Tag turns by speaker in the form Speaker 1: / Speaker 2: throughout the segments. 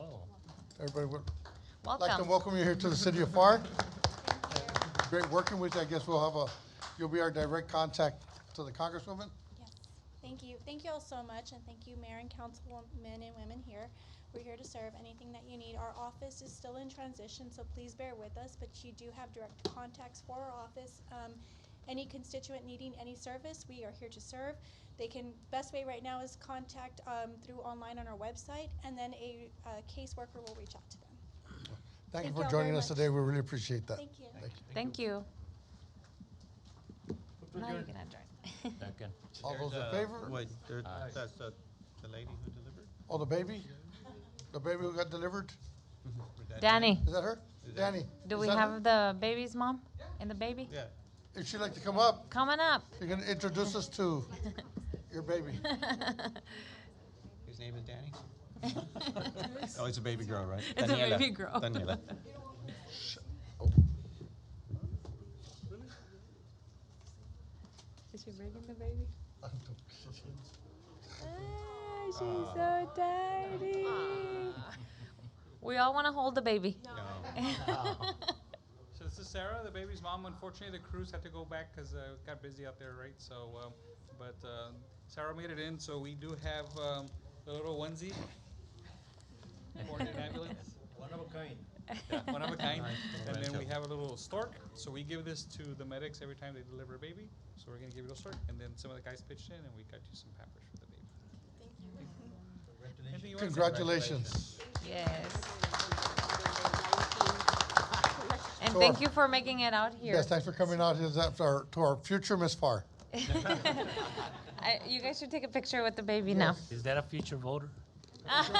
Speaker 1: Oh,
Speaker 2: Everybody, would like to
Speaker 3: Welcome.
Speaker 2: welcome you here to the city of FAR. Great working with you. I guess we'll have a, you'll be our direct contact to the Congresswoman.
Speaker 4: Yes, thank you. Thank you all so much, and thank you, Mayor and Councilmen and women here. We're here to serve anything that you need. Our office is still in transition, so please bear with us, but you do have direct contacts for our office. Um, any constituent needing any service, we are here to serve. They can, best way right now is contact, um, through online on our website, and then a, uh caseworker will reach out to them.
Speaker 2: Thank you
Speaker 4: Thank
Speaker 2: for
Speaker 4: y'all very
Speaker 2: joining us
Speaker 4: much.
Speaker 2: today. We really appreciate that.
Speaker 4: Thank you.
Speaker 3: Thank you. Now you can adjourn.
Speaker 1: Second.
Speaker 2: All those in
Speaker 5: Uh,
Speaker 2: favor?
Speaker 5: Wait, there- that's the, the lady who delivered?
Speaker 2: Oh, the baby? The baby who got delivered?
Speaker 5: Or that-
Speaker 3: Danny,
Speaker 2: Is that her? Danny?
Speaker 3: do
Speaker 2: is
Speaker 3: we
Speaker 2: that her?
Speaker 3: have the baby's mom and the baby
Speaker 5: Yeah,
Speaker 2: If she'd like to come up,
Speaker 3: coming up?
Speaker 2: you're gonna introduce us to your baby.
Speaker 5: his name is Danny? Oh, it's a baby girl, right?
Speaker 3: a
Speaker 5: Daniela.
Speaker 3: baby girl.
Speaker 5: Daniela.
Speaker 3: Is she bringing the baby? Ah, she's so tiny.
Speaker 6: Uh,
Speaker 3: We all want to hold the baby.
Speaker 5: No.
Speaker 7: So this is Sarah, the baby's mom. Unfortunately, the crews had to go back because uh, it got busy out there, right? So, um, but uh, Sarah made it in, so we do have um, the little onesie for an ambulance. One of a kind. And then we have a little stork. So we give this to the medics every time they deliver a baby. So we're gonna give it a stork, and then some of the guys pitched in, and we got you some pampers for the baby. Anything you wanna say?
Speaker 2: Congratulations.
Speaker 3: Yes. And
Speaker 2: Sure.
Speaker 3: thank you for making it out here.
Speaker 2: Yes, thanks for coming out here to our, to our future Miss FAR.
Speaker 3: I, you guys should take a picture with the baby now.
Speaker 1: Is that a future voter?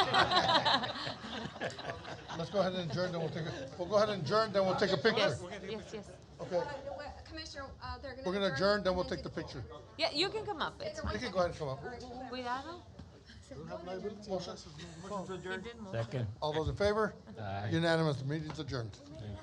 Speaker 2: Let's go ahead and adjourn, then we'll take, a- we'll go ahead and adjourn, then we'll take a picture.
Speaker 3: Yes, yes, yes.
Speaker 2: Okay,
Speaker 6: Uh, no, wait, Commissioner, uh, they're gonna.
Speaker 2: we're gonna adjourn, then we'll
Speaker 6: and
Speaker 2: take the picture.
Speaker 3: Yeah, you can come up. It's
Speaker 2: You can go ahead and come up.
Speaker 3: fine. Cuidado.
Speaker 2: Motion.
Speaker 3: He did move.
Speaker 1: Second.
Speaker 2: All those in favor?
Speaker 1: Aye. uh,
Speaker 2: Unanimous, meeting's adjourned.